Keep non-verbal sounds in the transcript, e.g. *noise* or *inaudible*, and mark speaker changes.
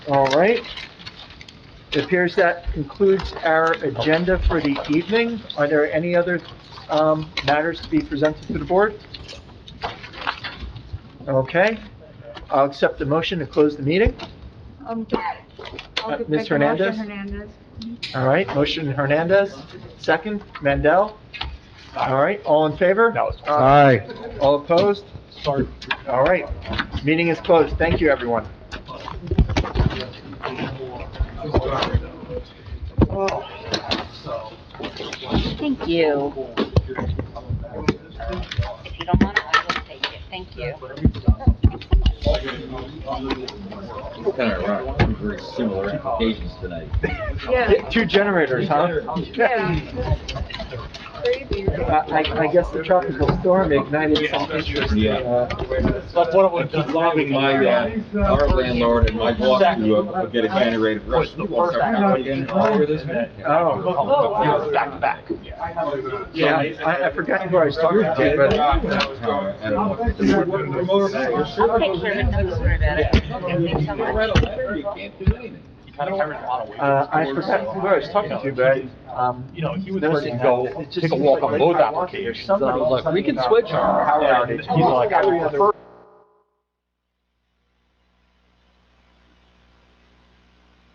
Speaker 1: All right. It appears that concludes our agenda for the evening. Are there any other um, matters to be presented to the board? Okay. I'll accept the motion to close the meeting.
Speaker 2: Um,
Speaker 1: Uh,
Speaker 2: I'll
Speaker 1: Ms.
Speaker 2: get- make a
Speaker 1: Hernandez?
Speaker 2: motion, Hernandez.
Speaker 1: All right, motion Hernandez, second, Mandel. All right, all in favor? Uh,
Speaker 3: No, it's-
Speaker 4: Aye.
Speaker 1: All opposed?
Speaker 3: Sorry.
Speaker 1: All right, meeting is closed. Thank you, everyone.
Speaker 5: Thank you. If you don't want it, I will take it. Thank you.
Speaker 6: Kind of rock, very similar applications tonight.
Speaker 2: Yeah,
Speaker 1: Two generators, huh?
Speaker 2: yeah. Crazy,
Speaker 1: I, *laughs*
Speaker 2: right?
Speaker 1: I I guess the tropical storm ignited some interest.
Speaker 6: Yeah.
Speaker 1: uh,
Speaker 3: But what
Speaker 6: I
Speaker 3: it
Speaker 6: keep lobbing my, uh, our landlord and my boss to uh, get a generator for us.
Speaker 3: The first act.
Speaker 1: Oh,
Speaker 3: Back to back.
Speaker 1: yeah, I, I forgot who I was talking to, but
Speaker 6: Uh, I don't know.
Speaker 5: I'll take care of it. Don't worry about it. Okay, thanks so much.
Speaker 6: You can't do anything.
Speaker 3: He kind of carried a lot of weight.
Speaker 1: Uh, I forgot who I was talking to, but, um.
Speaker 3: You know, he was
Speaker 1: noticing
Speaker 3: ready to
Speaker 1: that
Speaker 3: go
Speaker 1: it just
Speaker 3: take a
Speaker 1: seems
Speaker 3: walk
Speaker 1: like
Speaker 3: on both
Speaker 1: I want to hear
Speaker 3: applications.
Speaker 1: somebody
Speaker 3: I was like,
Speaker 1: something
Speaker 3: we can
Speaker 1: about
Speaker 3: switch.
Speaker 1: power
Speaker 3: And
Speaker 1: outage.
Speaker 3: He's like, I would prefer